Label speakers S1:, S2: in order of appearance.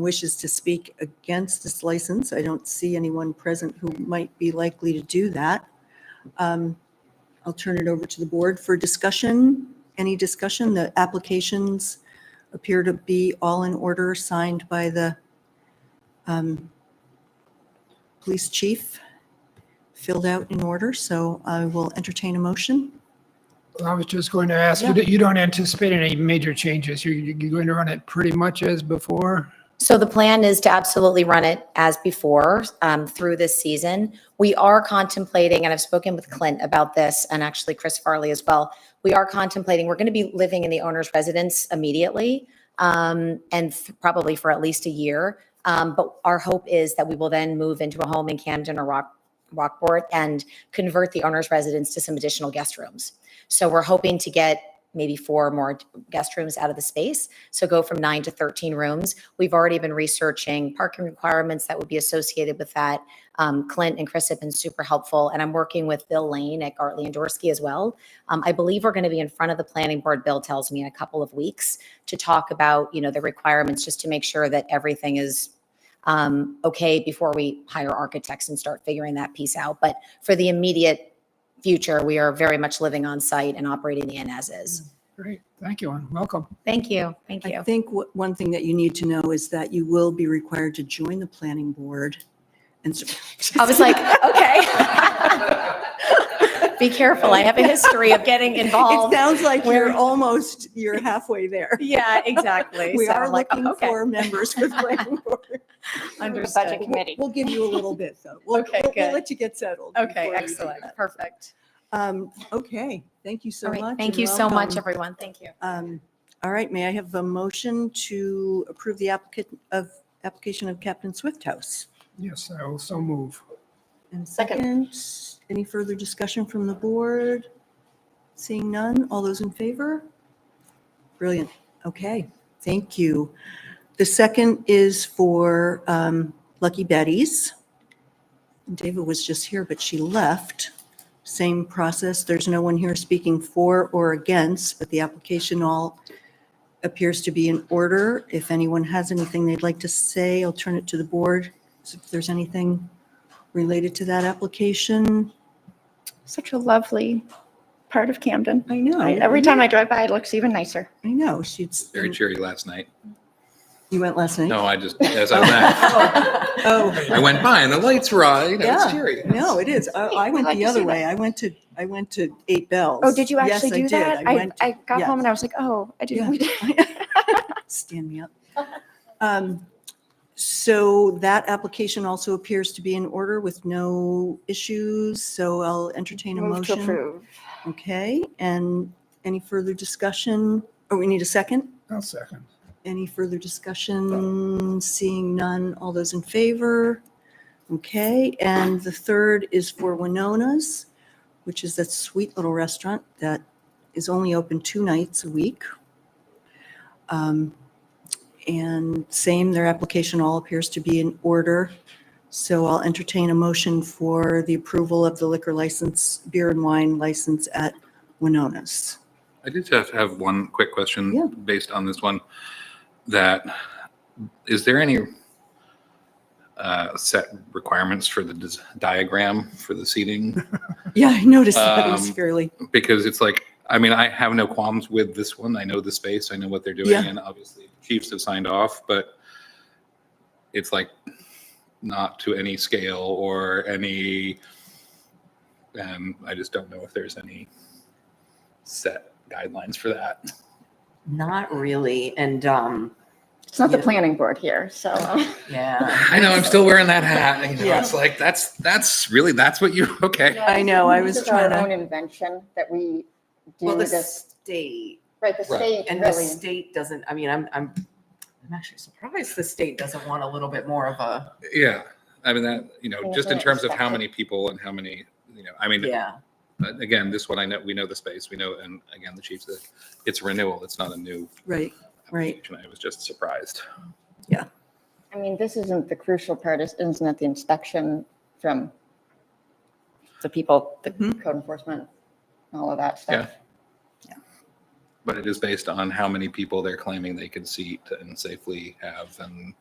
S1: wishes to speak against this license. I don't see anyone present who might be likely to do that. Um, I'll turn it over to the board for discussion. Any discussion? The applications appear to be all in order, signed by the um, police chief, filled out in order, so I will entertain a motion.
S2: I was just going to ask, you
S1: Yeah.
S2: don't- you don't anticipate any major changes? You're, you're going to run it pretty much as before?
S3: So the plan is to absolutely run it as before um, through this season. We are contemplating, and I've spoken with Clint about this and actually Chris Farley as well. We are contemplating, we're going to be living in the owner's residence immediately um, and th- probably for at least a year. Um, But our hope is that we will then move into a home in Camden or Rock, Rockport and convert the owner's residence to some additional guest rooms. So we're hoping to get maybe four more guest rooms out of the space. So go from nine to 13 rooms. We've already been researching parking requirements that would be associated with that. Um, Clint and Chris have been super helpful, and I'm working with Bill Lane at Gartley and Dorsey as well. Um, I believe we're going to be in front of the planning board, Bill tells me, in a couple of weeks to talk about, you know, the requirements, just to make sure that everything is um, okay before we hire architects and start figuring that piece out. But for the immediate future, we are very much living on site and operating the inn as is.
S2: Great, thank you, and welcome.
S3: Thank you, thank
S1: I
S3: you.
S1: think what- one thing that you need to know is that you will be required to join the planning board. And so-
S3: I was like, okay. Be careful. I have a history of getting
S1: It
S3: involved.
S1: sounds like you're
S3: Where-
S1: almost, you're halfway there.
S3: Yeah, exactly.
S1: We
S3: So
S1: are
S3: I'm like, oh,
S1: looking
S3: okay.
S1: for members for the planning board.
S3: Understood.
S1: We'll- We'll give you a little bit, though. We'll-
S3: Okay,
S1: we'll- We'll
S3: good.
S1: let you get settled. before
S3: Okay,
S1: we do
S3: excellent.
S1: that.
S3: Perfect.
S1: Um, Okay, thank you so
S3: All
S1: much.
S3: right. Thank
S1: and
S3: you so much,
S1: welcome.
S3: everyone. Thank you.
S1: Um, All right, may I have a motion to approve the applicant of, application of Captain Swift House?
S2: Yes, I will so move.
S1: And
S3: Second.
S1: second, any further discussion from the board? Seeing none, all those in favor? Brilliant. Okay, thank you. The second is for um, Lucky Betty's. David was just here, but she left. Same process. There's no one here speaking for or against, but the application all appears to be in order. If anyone has anything they'd like to say, I'll turn it to the board. So If there's anything related to that application.
S4: such a lovely part of Camden.
S1: I know.
S4: I- Every time I drive by, it looks even nicer.
S1: I know, she's,
S5: very cheery last night.
S1: Mm. you went last night?
S5: No, I just, as I went,
S1: Oh,
S5: I went by and the lights were on, you know,
S1: Yeah.
S5: it's cheery.
S1: no, it is. I, I went
S4: like
S1: the
S4: to
S1: other
S4: see
S1: way. I went to, I went to Eight Bells.
S4: Oh, did you
S1: Yes,
S4: actually
S1: I
S4: do
S1: did.
S4: that?
S1: I
S4: I,
S1: went,
S4: I got
S1: yeah.
S4: home and I was like, oh, I didn't.
S1: Yeah.
S4: we didn't-
S1: stand me up. Um, So that application also appears to be in order with no issues, so I'll entertain a
S4: Move to
S1: motion.
S4: approve.
S1: Okay, and any further discussion? Oh, we need a second?
S2: I'll second.
S1: Any further discussion? Seeing none, all those in favor? Okay, and the third is for Winona's, which is that sweet little restaurant that is only open two nights a week. Um, And same, their application all appears to be in order. So I'll entertain a motion for the approval of the liquor license, beer and wine license at Winona's.
S5: I did have, have one quick
S1: Yeah.
S5: question based on this one. That, is there any uh, set requirements for the dis- diagram for the seating?
S1: Yeah, I noticed that it was
S5: Um,
S1: fairly,
S5: Because it's like, I mean, I have no qualms with this one. I know the space, I know what they're doing,
S1: Yeah.
S5: and obviously the Chiefs have signed off, but it's like not to any scale or any. Um, I just don't know if there's any set guidelines for that.
S6: Not really, and um,
S4: It's not the
S6: Yeah.
S4: planning board here, so.
S6: yeah.
S5: I know I'm still wearing that hat. And, you know,
S1: Yeah.
S5: It's like that's that's really that's what you okay.
S1: I know, I was
S4: This is our
S1: trying to-
S4: Own invention that we do
S6: Well, the
S4: this,
S6: state
S4: right, the
S5: Right.
S4: state
S6: and the
S4: really.
S6: state doesn't. I mean, I'm I'm I'm actually surprised the state doesn't want a little bit more of a
S5: Yeah, I mean that you know
S4: Yeah,
S5: just in
S4: that's
S5: terms of how
S4: expected.
S5: many people and how many you know. I mean,
S6: yeah.
S5: but again, this one I know we know the space we know, and again the Chiefs. uh, It's renewal. It's not a new
S1: right, right.
S5: application. I was just surprised.
S7: I mean, this isn't the crucial part, is- isn't it the inspection from the people, the
S1: Mhm.
S7: code enforcement, all of that stuff?
S5: But it is based on how many people they're claiming they can seat and safely have, and